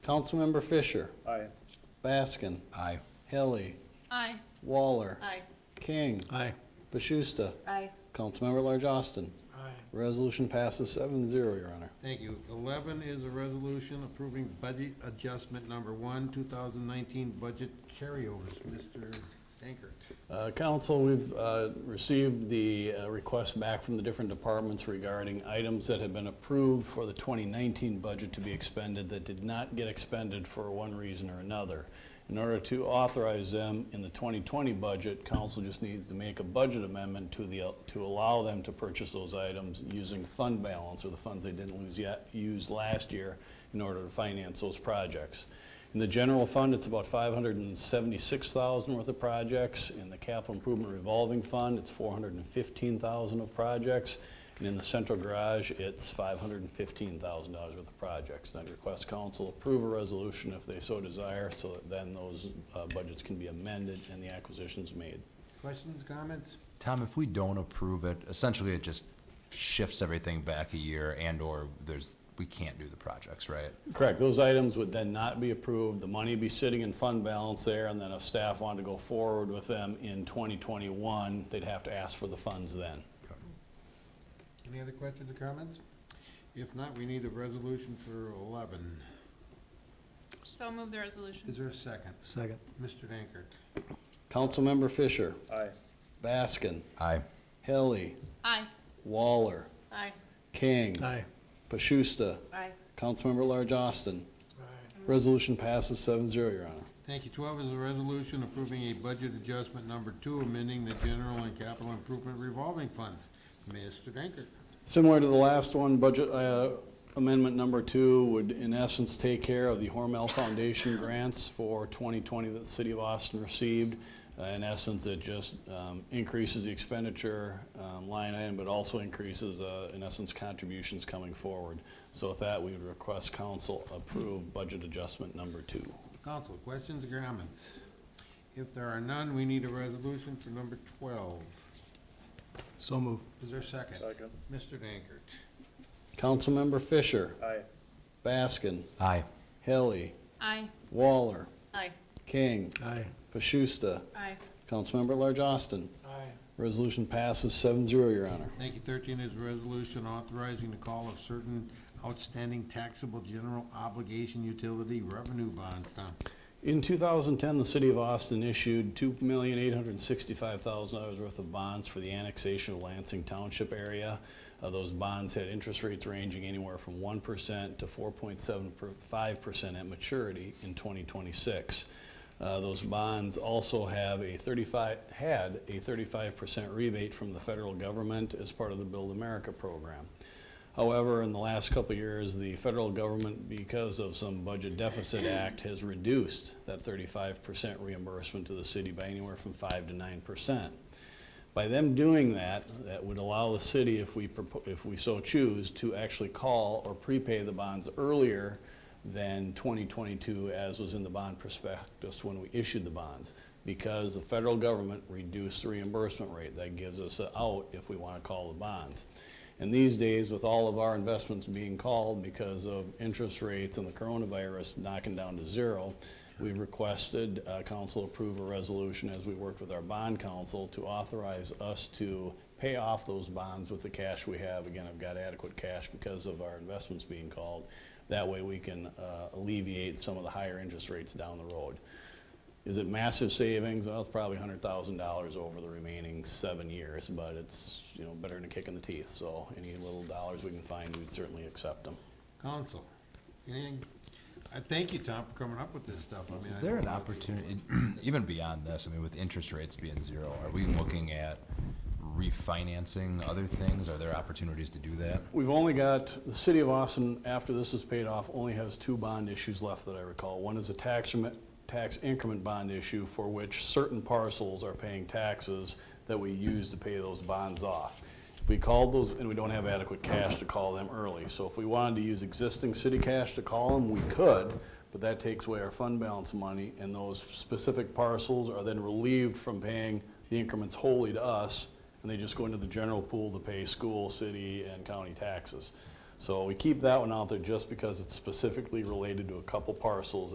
Councilmember Fisher, Aye. Baskin, Aye. Helly, Aye. Waller, Aye. King, Aye. Bashusta, Aye. Councilmember at Large Austin. Aye. Resolution passes seven zero, Your Honor. Thank you. Eleven is a resolution approving budget adjustment number one, two thousand nineteen budget carryovers. Mr. Dankert. Uh, Council, we've uh, received the uh, requests back from the different departments regarding items that have been approved for the 2019 budget to be expended that did not get expended for one reason or another. In order to authorize them in the 2020 budget, council just needs to make a budget amendment to the, to allow them to purchase those items using fund balance, or the funds they didn't lose yet, use last year, in order to finance those projects. In the general fund, it's about 576,000 worth of projects. In the capital improvement revolving fund, it's 415,000 of projects. And in the central garage, it's $515,000 worth of projects. And I request council approve a resolution if they so desire, so that then those uh, budgets can be amended and the acquisitions made. Questions, comments? Tom, if we don't approve it, essentially it just shifts everything back a year and/or there's, we can't do the projects, right? Correct, those items would then not be approved, the money be sitting in fund balance there, and then if staff wanted to go forward with them in 2021, they'd have to ask for the funds then. Any other questions or comments? If not, we need a resolution for eleven. So move the resolution. Is there a second? Second. Mr. Dankert. Councilmember Fisher. Aye. Baskin, Aye. Helly, Aye. Waller, Aye. King, Aye. Pashusta, Aye. Councilmember at Large Austin. Aye. Resolution passes seven zero, Your Honor. Thank you. Twelve is a resolution approving a budget adjustment number two, amending the general and capital improvement revolving funds. Mr. Dankert. Similar to the last one, budget uh, amendment number two would in essence take care of the Hormel Foundation grants for 2020 that the city of Austin received. Uh, In essence, it just um, increases the expenditure um, line item, but also increases, uh, in essence, contributions coming forward. So with that, we would request council approve budget adjustment number two. Council, questions or comments? If there are none, we need a resolution for number twelve. So move. Is there a second? Second. Mr. Dankert. Councilmember Fisher, Aye. Baskin, Aye. Helly, Aye. Waller, Aye. King, Aye. Pashusta, Aye. Councilmember at Large Austin. Aye. Resolution passes seven zero, Your Honor. Thank you. Thirteen is a resolution authorizing the call of certain outstanding taxable general obligation utility revenue bonds. Tom, In 2010, the city of Austin issued $2,865,000 worth of bonds for the annexation of Lansing Township area. Uh, Those bonds had interest rates ranging anywhere from 1% to 4.75% at maturity in 2026. Uh, Those bonds also have a 35, had a 35% rebate from the federal government as part of the Build America program. However, in the last couple of years, the federal government, because of some budget deficit act, has reduced that thirty-five percent reimbursement to the city by anywhere from five to nine percent. By them doing that, that would allow the city, if we, propo- if we so choose, to actually call or prepay the bonds earlier than 2022, as was in the bond prospectus when we issued the bonds, because the federal government reduced the reimbursement rate. That gives us a out if we want to call the bonds. And these days, with all of our investments being called because of interest rates and the coronavirus knocking down to zero, we requested uh, council approve a resolution as we worked with our bond council to authorize us to pay off those bonds with the cash we have. Again, I've got adequate cash because of our investments being called. That way, we can uh, alleviate some of the higher interest rates down the road. Is it massive savings? Well, it's probably hundred thousand dollars over the remaining seven years, but it's, you know, better than a kick in the teeth. So any little dollars we can find, we'd certainly accept them. council, anything? I thank you, Tom, for coming up with this stuff. I mean, Is I there an know- opportunity, even beyond this, I mean, with interest rates being zero, are we looking at refinancing other things? Are there opportunities to do that? We've only got, the city of Austin, after this is paid off, only has two bond issues left that I recall. One is a tax, remi- tax increment bond issue for which certain parcels are paying taxes that we use to pay those bonds off. If we called those, and we don't have adequate cash to call them early, so if we wanted to use existing city cash to call them, we could, but that takes away our fund balance money, and those specific parcels are then relieved from paying the increments wholly to us, and they just go into the general pool to pay school, city, and county taxes. So we keep that one out there just because it's specifically related to a couple parcels